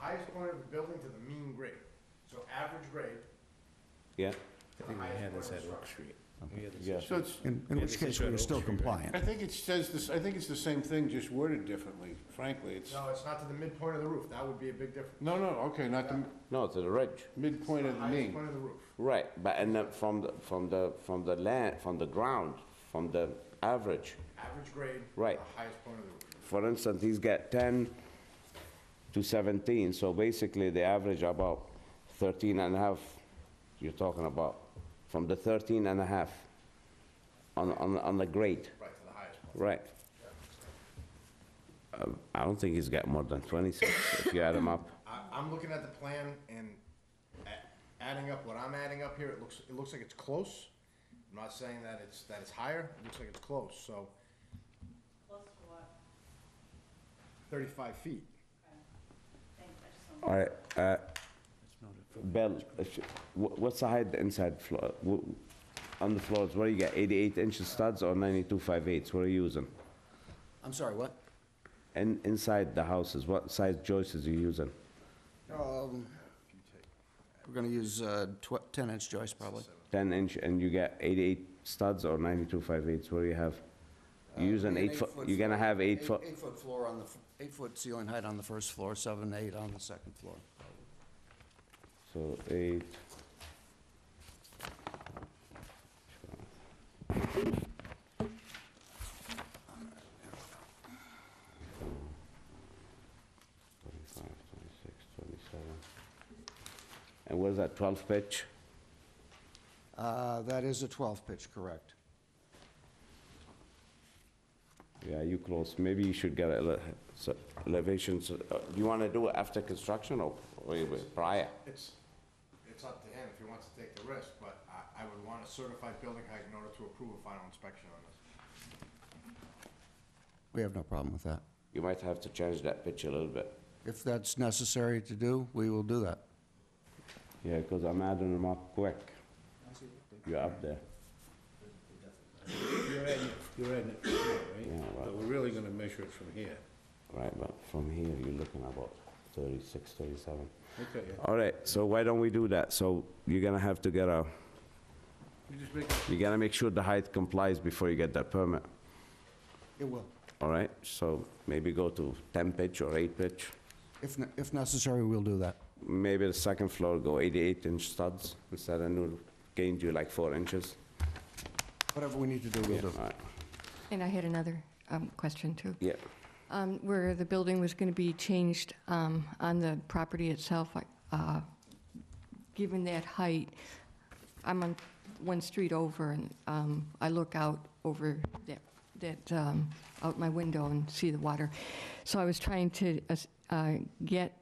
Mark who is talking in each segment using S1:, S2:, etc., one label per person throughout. S1: highest corner of the building to the mean grade, so average grade.
S2: Yeah,
S1: I think we had this at Oak Street.
S2: yeah.
S3: So it's,
S4: In, in which case, we were still compliant.
S3: I think it says this, I think it's the same thing, just worded differently, frankly, it's,
S1: No, it's not to the midpoint of the roof, that would be a big difference.
S3: no, no, okay, not the
S2: No, to the ridge.
S3: midpoint of the
S1: Highest
S3: mean.
S1: point of the roof.
S2: Right, but and then from the, from the, from the land, from the ground, from the average.
S1: Average grade.
S2: Right.
S1: The highest point of the roof.
S2: For instance, he's got 10 to 17, so basically the average about 13 and a half you're talking about, from the 13 and a half on, on, on the grade,
S1: Right, to the highest point.
S2: right? Um, I don't think he's got more than 26 if you add them up.
S1: I, I'm looking at the plan and a- adding up what I'm adding up here, it looks, it looks like it's close. I'm not saying that it's, that it's higher, it looks like it's close, so
S5: Close to what?
S1: thirty-five feet.
S5: Thanks, I just
S2: All right, uh, Bill, if you- wha- what's the height inside floor, wh- on the floors, what do you got, 88 inch studs or 92 5/8? What are you using?
S6: I'm sorry, what?
S2: And inside the houses, what size joists are you using?
S6: Um, We're gonna use uh, tw- 10-inch joists probably.
S2: 10 inch and you get 88 studs or 92 5/8, what do you have? Uh, You use an
S6: An
S2: 8 foot,
S6: eight-foot
S2: you're gonna
S6: floor.
S2: have 8 foot,
S6: Eight-foot floor on the, f- eight-foot ceiling height on the first floor, seven, eight on the second floor.
S2: so 8. Twenty-five, twenty-six, twenty-seven. And what is that, 12 pitch?
S6: Uh, That is a 12-pitch, correct.
S2: Yeah, you close, maybe you should get ele- so- elevations, uh, you wanna do it after construction or or prior?
S1: It's, it's up to him if he wants to take the risk, but I, I would want a certified building height in order to approve a final inspection on this.
S6: We have no problem with that.
S2: You might have to change that pitch a little bit.
S6: If that's necessary to do, we will do that.
S2: Yeah, because I'm adding them up quick. You're up there.
S3: You're adding it- you're adding it, from here,
S2: Yeah,
S3: right?
S2: right.
S3: But we're really gonna measure it from here.
S2: Right, but from here, you're looking about 36, 37.
S3: Okay, yeah.
S2: All right, so why don't we do that? So you're gonna have to get a,
S3: You just make,
S2: you gotta make sure the height complies before you get that permit,
S6: It will.
S2: all right? So maybe go to 10 pitch or 8 pitch.
S6: If ne- if necessary, we'll do that.
S2: Maybe the second floor go 88 inch studs instead of new, gained you like 4 inches.
S6: Whatever we need to do, we'll do.
S2: All right,
S7: And I had another um, question, too.
S2: Yeah,
S7: Um, Where the building was going to be changed um, on the property itself, like, uh, given that height, I'm on one street over, and um, I look out over that, that, um, out my window and see the water. So I was trying to uh, get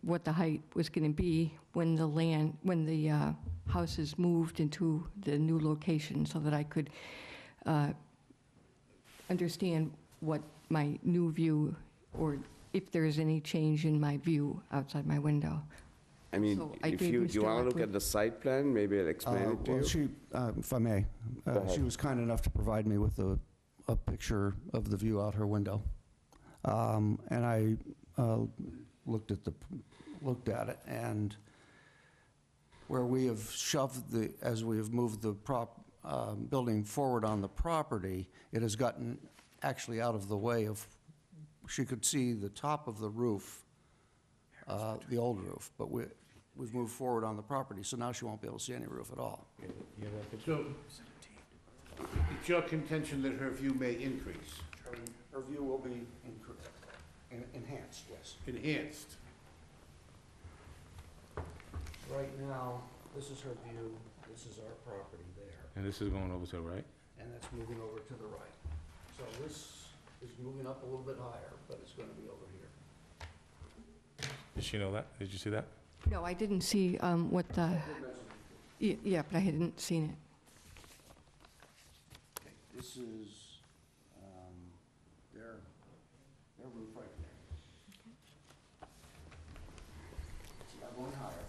S7: what the height was going to be when the land, when the uh, house is moved into the new location, so that I could uh, understand what my new view, or if there is any change in my view outside my window.
S2: I mean,
S7: So I
S2: if
S7: gave
S2: you,
S7: Mr.
S2: do you wanna look
S7: Lockwood-
S2: at the site plan, maybe I'll
S6: Uh,
S2: explain it to you?
S6: Well, she, uh, if I may, uh,
S2: Go ahead.
S6: she was kind enough to provide me with a, a picture of the view out her window. Um, And I uh, looked at the, looked at it, and where we have shoved the, as we have moved the prop, um, building forward on the property, it has gotten actually out of the way of, she could see the top of the roof, uh, the old roof, but we, we've moved forward on the property, so now she won't be able to see any roof at all.
S3: so, it's your contention that her view may increase,
S6: Her view will be enhanced, yes.
S3: enhanced.
S6: Right now, this is her view, this is our property there,
S8: And this is going over to the right?
S6: and that's moving over to the right. So this is moving up a little bit higher, but it's gonna be over here.
S8: Did she know that? Did you see that?
S7: No, I didn't see um, what the, Ye- yeah, but I hadn't seen it.
S6: Okay, This is, um, their, their roof right there. It's not going higher,